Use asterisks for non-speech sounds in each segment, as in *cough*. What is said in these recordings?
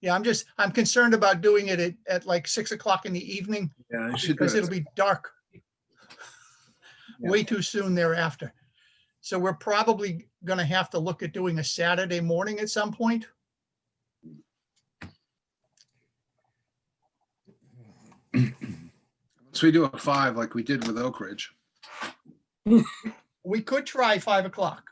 Yeah, I'm just, I'm concerned about doing it at, at like six o'clock in the evening Yeah, I should do because it. it'll be dark Yeah. way too soon thereafter. So we're probably gonna have to look at doing a Saturday morning at some point. So we do a five like we did with Oak Ridge. We could try five o'clock.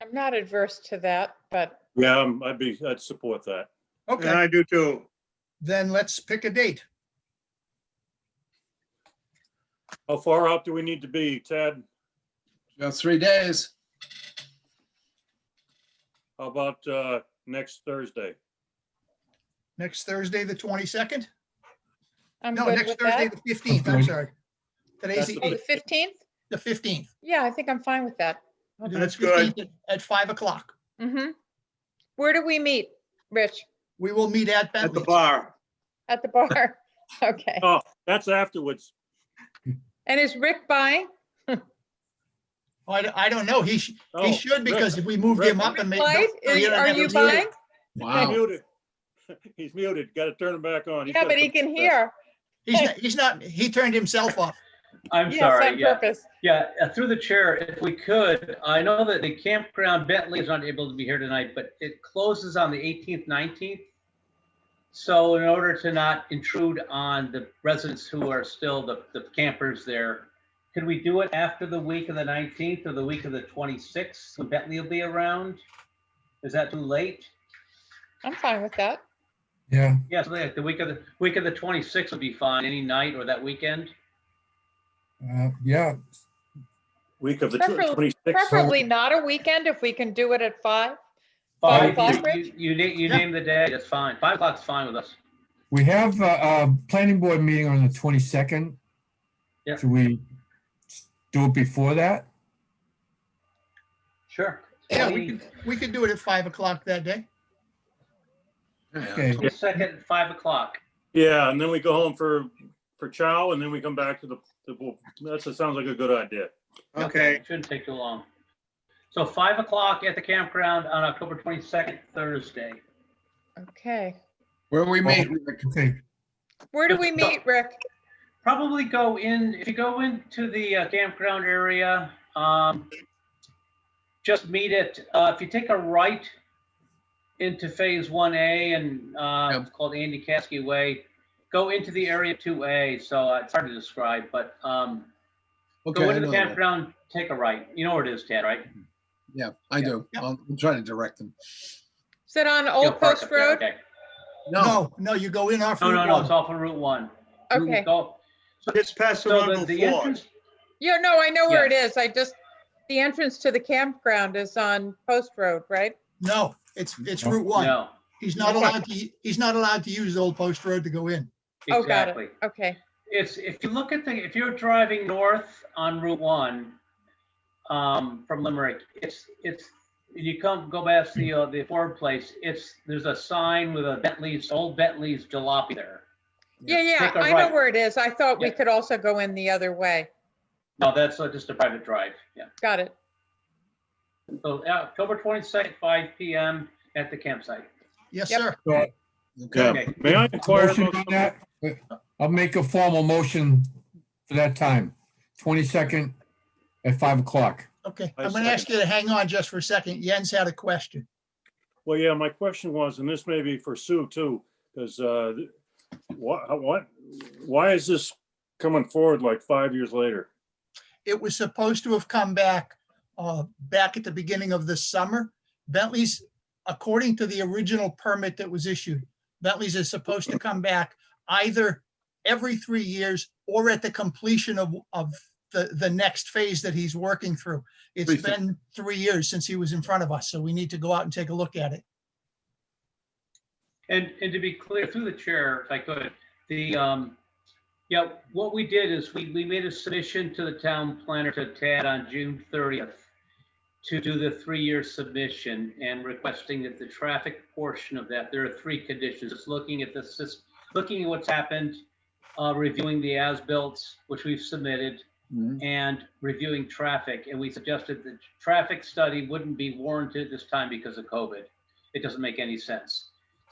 I'm not adverse to that, but Yeah, um, I'd be, I'd support that. And Okay, I do too. then let's pick a date. How far out do we need to be, Ted? About three *laughs* days. How about, uh, next Thursday? Next Thursday, the twenty-second? I'm No, good next with Thursday, that. the fifteenth, I'm sorry. Today's That's the the Oh, the eighth, 15th? the fifteenth. Yeah, I think I'm fine with that. That's good. At five o'clock. hmm Where do we meet, Rich? We will meet at At the Bentley's. bar. At the *laughs* bar? Okay. Oh, that's afterwards. And is Rick buying? I, d- I don't know. He, sh- Oh, he should because Rick, if we moved Rick. him up and made. Clyde, no, is- you don't are have a you meeting. buying? He's Wow. muted. *laughs* He's muted. Got to turn him back on. He's Yeah, gotta but he come can back. hear. He's not, he's not, he turned himself off. I'm Yes, on sorry, yeah, purpose. yeah, uh, through the chair, if we could, I know that the campground Bentley is not able to be here tonight, but it closes on the 18th, 19th. So in order to not intrude on the residents who are still the, the campers there, could we do it after the week of the 19th or the week of the 26th? when Bentley will be around? Is that too late? I'm fine with that. Yes, the the week of the, week of the 26th would be fine, any night or that weekend. Uh, Yeah, Week of the Prefer- twenty-sixth. Preferably not a weekend if we can do it at five. Five Five, o'clock, you, you na- you Yeah. name the day, that's fine. Five o'clock's fine with us. we have a, a planning board meeting on the twenty-second. Yeah. Should we do it before that? Sure. Yeah, we could, we could do it at five o'clock that day. Yeah, Okay. Second, five o'clock. Yeah, and then we go home for, for chow and then we come back to the, the, that's, that sounds like a good idea. Okay, Shouldn't take too long. So five o'clock at the campground on October twenty-second, Thursday. Okay. Where we meet, Rick. Okay, Where do we meet, Rick? Probably go in, if you go into the uh, campground area, um, just meet it, uh, if you take a right into phase one A and, uh, Yep. it's called Andy Caskey Way, go into the area two A, so uh, it's hard to describe, but, um, Okay, go I into know the that. campground, take a right. You know where it is, Ted, right? Yeah, I do. Yeah. I'll- I'm trying to direct them. Is it on Yeah, Old park Post up there, Road? okay. No, No, no, you go in off. No, Route no, no, one. it's off of Route One. Okay. Go- it's past the So the, one the before. entrance, Yeah, no, I know where it is. I just, the entrance to the campground is on Post Road, right? No, it's, it's No. Route One. no, He's not allowed to, he's not allowed to use Old Post Road to go in. Oh, got it. exactly. Okay. It's, if you look at the, if you're driving north on Route One, um, from Limerick, it's, it's, you come, go past the, uh, the Ford place, it's, there's a sign with a Bentley's, old Bentley's jalopy there. Yeah, yeah, Take a I know right. where it is. I thought we Yeah. could also go in the other way. No, that's uh, just a private drive, yeah. Got it. So uh, October twenty-second, five PM at the campsite. Yes, Yep. sir. Yeah. Okay. May I inquire motion about on something? that. Uh, I'll make a formal motion for that time, twenty-second at five o'clock. Okay, I I'm gonna ask you to hang on just for a second. Jens had a question. Well, yeah, my question was, and this may be for Sue too, because what, what, why is this coming forward like five years later? It was supposed to have come back, uh, back at the beginning of the summer. Bentley's, according to the original permit that was issued, Bentley's is supposed to come back either every three years or at the completion of, of the, the next phase that he's working through. It's Three six- been three years since he was in front of us, so we need to go out and take a look at it. And, and to be clear, through the chair, if I could, the, um, yeah, what we did is we, we made a submission to the town planner to Tad on June thirtieth to do the three-year submission and requesting that the traffic portion of that, there are three conditions. It's looking at the sys, looking at what's happened, uh, reviewing the as-built, which we've submitted, Mhm. and reviewing traffic, and we suggested the traffic study wouldn't be warranted this time because of COVID. It doesn't make any sense.